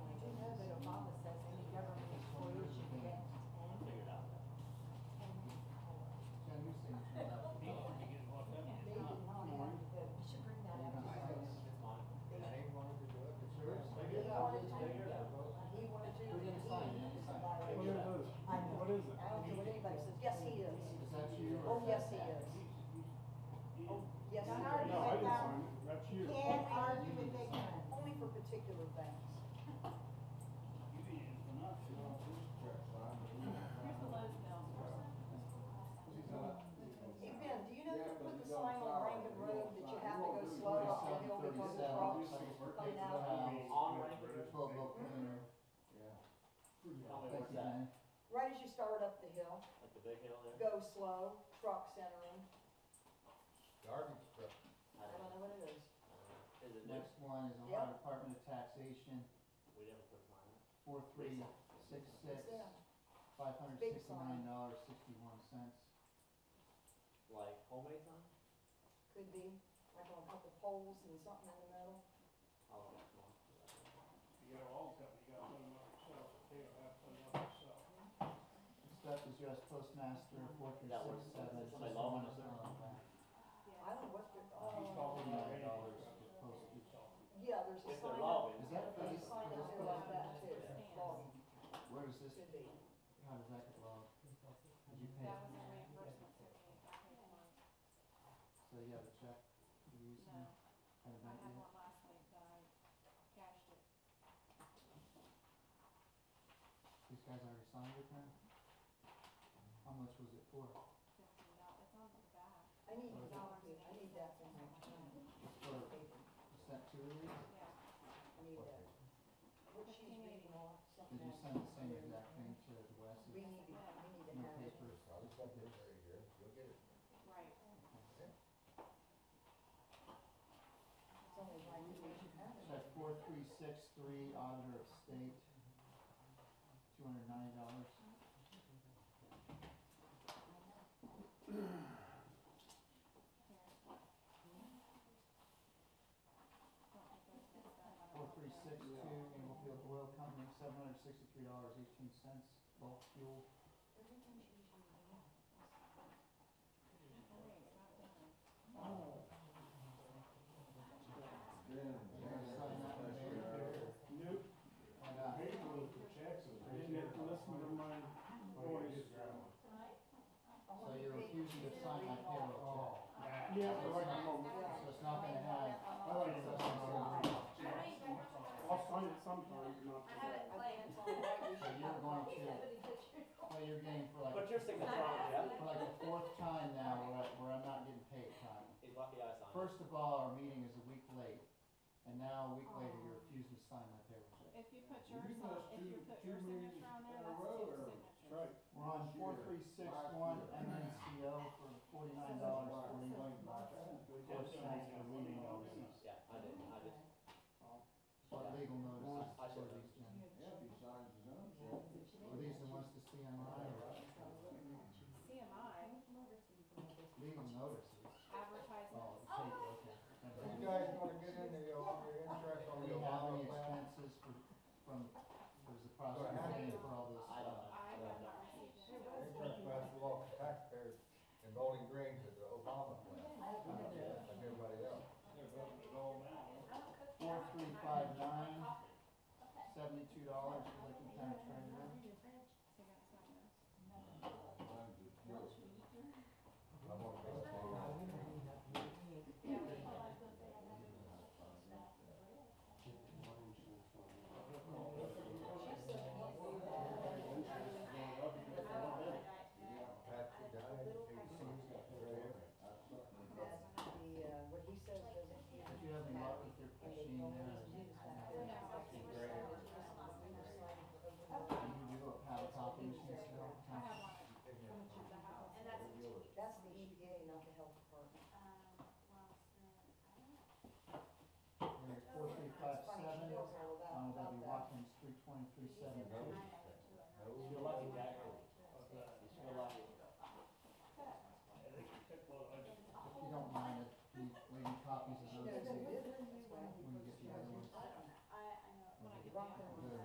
Oh, Yes, he is. Oh, Yes, No, he no, is. I Right didn't now. sign it, that's you. Can't argue with they can. Only for particular things. Here's the Lowe's bill. Hey, Ben, do you know you put the sign on Rankin Road that you have to go slow up the hill because of trucks coming out? On Twelve volt cleaner, What's thank you, that? man. Right as you start up the hill, Like the big hill there? go slow, trucks entering, Garbage truck. I I don't don't know know. what it is. Is it new? Next one is Ohio Yep. Department of Taxation, We never put a sign up. four three six It's six, them. five hundred sixty-nine dollars sixty-one cents. Like homemade sign? Could be, like on a couple poles and something in the middle. Oh, that's one. You got all of them, you got one of yourself, they don't have one of themselves. Next up is U.S. Postmaster, four three That was- six seven, that's just my the law one officer. I don't know what they're, He's oh, talking about Nine dollars Randy. for postage. yeah, there's a If they're sign up, lobbying. Is that there's a face, sign up there like that too. Yeah. Well, where is this, Could be. how does that get logged? Did you pay? That was a reimbursement to me. I paid for it. So you have a check you're using? No, Haven't I done it yet? had one last week, but I cashed it. These guys already signed it now? How much was it for? Fifteen dollars. It's on the back. I need, Fifteen dollars and I need that from eighty-six cents. For, you sent two of these? Yeah, I need that. What she's reading on, something. Did you else. send the same exact thing to Wes? We need, to- we need No to have it. papers? right. It's only right that we should have it. Check four three six three, auditor of state, two hundred ninety dollars. Here. Don't think those things done on a Four three monthly. six two, Englefield Oil Company, seven hundred sixty-three dollars, eighteen cents, bulk fuel. Everything she's reading. Oh, wait, it's not done. Sign that one, Dave. Nope, Why not? the paper was for Jackson, I didn't have to listen to my voice. I So want you're the paper. refusing to sign my payroll Yeah, but I can go- check, so it's not gonna have, I like to listen to my I'll sign it sometime, but not. I think it's only right so we should you're have going one. to, well, you're getting for like, But your signature on it, yeah? for like the fourth time now where I, where I'm not getting paid time. He's lucky I signed it. First of all, our meeting is a week late, and now a week later, you're refusing to sign my payroll check. If you put You yours must on, if do you put two your meetings signature in on there, a that's row, or- two signatures. Right. We're on four three six one MNCO for forty-nine dollars forty-one Four cents for legal notices. Yeah, I did, I just, What legal notices I for should- these, Jim? Were these the ones to CMI or CMI, legal notices? advertisement, Oh, the paper, okay. You guys wanna get into your, your interest on Do your we have any water plan? expenses for, from, there's a prosecutor paying for all this I don't stuff? know. I I have don't know. not received it. Interest by the law of taxpayers in Bowling Green to the Obama plan, like everybody else. Four three five nine, sevenlicking County Treasurer. So you gotta sign those. I'm gonna uh, E uh, Um,